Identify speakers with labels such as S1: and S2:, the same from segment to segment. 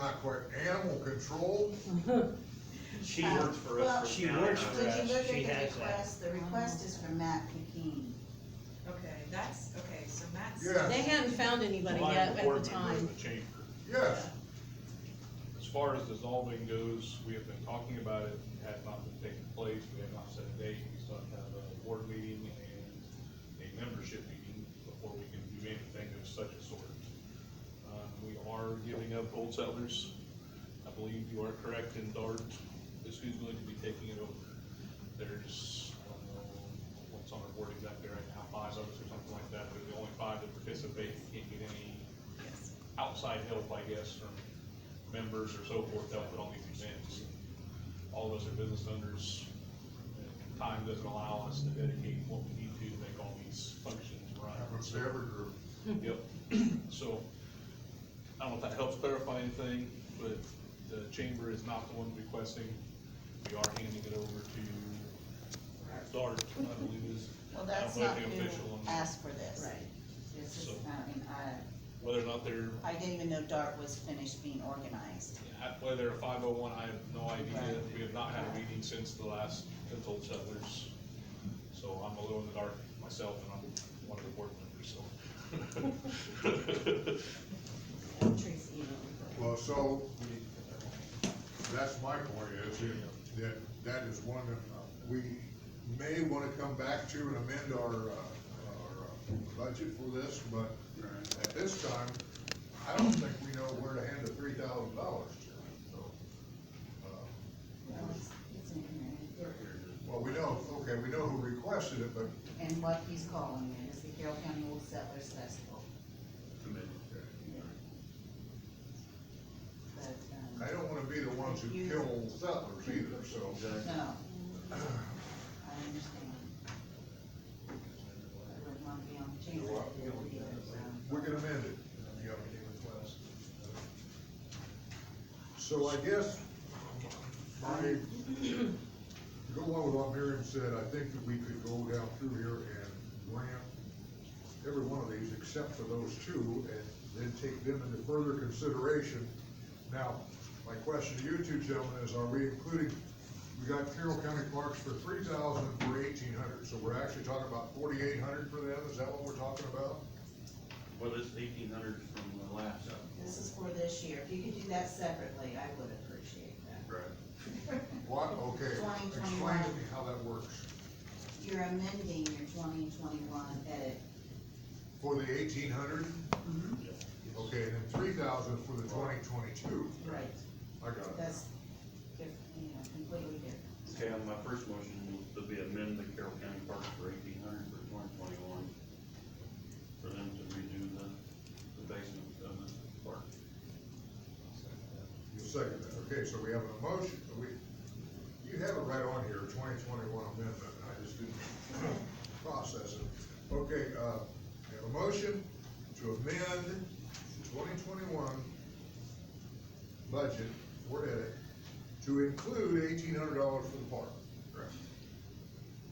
S1: not quite animal control,
S2: She
S3: Uh,
S2: works for
S3: well,
S2: us. for
S4: She
S2: county,
S4: works
S2: huh?
S4: for
S3: Would you
S4: us.
S3: look
S4: She
S3: at the
S4: has that.
S3: request, the request is from Matt Peking.
S5: Okay, that's, okay, so Matt's.
S6: They
S1: yes,
S6: hadn't found anybody
S7: Mine
S6: yet at
S7: board
S6: the
S7: member in
S6: time.
S7: the chamber.
S1: yes.
S7: As far as dissolving goes, we have been talking about it, it had not been taking place, we had not set a date, we still have to have a board meeting and a membership meeting before we can do anything of such a sort. Uh, we are giving up Old Settlers, I believe you are correct, in Dart is who's going to be taking it over. There's, I don't know, what's on our board exactly right now, five of us or something like that, but the only five that participate can't get any
S5: Yes.
S7: outside help, I guess, from members or so forth that put on these events. All of us are business owners, and time doesn't allow us to dedicate what we need to to make all these functions run.
S1: Happens to every group.
S7: Yep, so, I don't know if that helps clarify anything, but the chamber is not the one requesting. We are handing it over to DART, I believe is.
S3: Well, that's
S7: I don't
S3: not
S7: know if the
S3: who
S7: official one-
S3: asked for this.
S6: Right.
S3: This is,
S7: So-
S3: I mean, I,
S7: Whether or not they're
S3: I didn't even know DART was finished being organized.
S7: Yeah, Whether they're five oh one, I have no idea.
S3: Right.
S7: We have not had a meeting since the last, since Old Settlers. So I'm a little in the dark myself and I'm one of the board members, so.
S6: Tracy emailed me.
S1: Well, so, that's my point is that, that is one that we may wanna come back to and amend our, uh, our uh, budget for this, but at this time, I don't think we know where to hand the three thousand dollars to, so. uh,
S3: Well, it's- it's in here.
S1: Well, we know, okay, we know who requested it, but
S3: And what he's calling it is the Carroll County Old Settlers Festival, but,
S1: I
S3: um,
S1: don't wanna be the ones who kill old settlers either, so.
S3: no. I understand. I wouldn't want to be on the chamber board either, so.
S1: We can amend it. So I guess, I, go along with what Miriam said, I think that we could go down through here and grant every one of these except for those two, and then take them into further consideration. Now, my question to you two gentlemen is, are we including, we got Carroll County Parks for three thousand and for eighteen hundred, so we're actually talking about forty-eight hundred for them, is that what we're talking about?
S2: Well, this eighteen hundred from the last, uh,
S3: This is for this year. If you could do that separately, I would appreciate that.
S1: Right. What, okay,
S3: Twenty,
S1: explain to
S3: twenty-one.
S1: me how that works,
S3: You're amending your twenty twenty-one edit.
S1: for the eighteen hundred,
S3: Mm-hmm.
S1: okay, and then three thousand for the twenty twenty-two,
S3: Right,
S1: I got it.
S3: that's different, you know, completely different.
S2: okay, on my first motion, to be amend the Carroll County Parks for eighteen hundred for twenty twenty-one. For them to redo the, the basement of the park.
S1: You second that, okay, so we have a motion, we, you have it right on here, twenty twenty-one amendment, I just didn't process it. Okay, uh, we have a motion to amend the twenty twenty-one budget for edit to include eighteen hundred dollars for the park. Correct.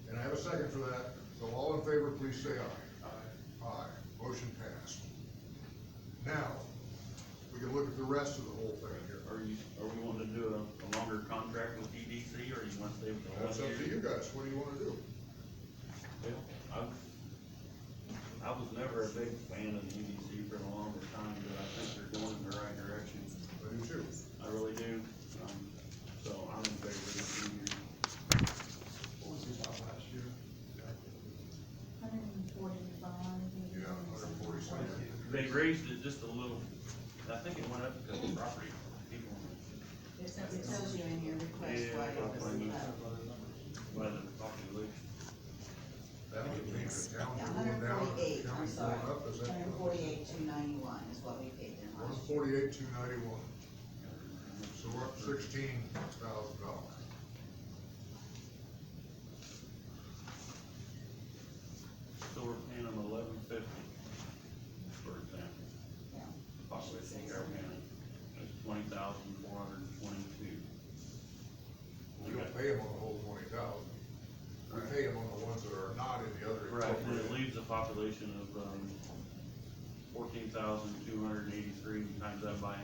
S1: And I have a second for that, so all in favor, please say aye. Aye. Aye, motion passed. Now, we can look at the rest of the whole thing here.
S2: Are you, are we wanting to do a, a longer contract with EDC, or you want to stay with the one year?
S1: That's up to you guys, what do you wanna do?
S2: Well, I, I was never a big fan of the EDC for the longest time, but I think they're going in the right direction.
S1: I do too.
S2: I really do, um, so I'm in favor of the two-year.
S3: Hundred and forty-five.
S1: Yeah, hundred and forty something.
S2: They raised it just a little, I think it went up because of property. people
S3: It tells you in your request
S2: Yeah,
S3: why
S2: I
S3: it was uh,
S2: find it.
S3: cut.
S2: by the population.
S1: That would mean the town
S3: Yeah,
S1: going
S3: hundred and
S1: down, the
S3: forty-eight, I'm
S1: county
S3: sorry.
S1: going up, is that?
S3: Hundred and forty-eight, two ninety-one is what we paid them
S1: One
S3: last year.
S1: forty-eight, two ninety-one, so we're up sixteen thousand dollars.
S2: So we're paying them eleven fifty, for example,
S3: Yeah.
S2: population in Carroll County. That's twenty thousand four hundred and twenty-two.
S1: We don't pay them on the whole twenty thousand, we pay them on the ones that are not in the other.
S2: Right, and it leaves a population of, um, fourteen thousand two hundred and eighty-three, times that by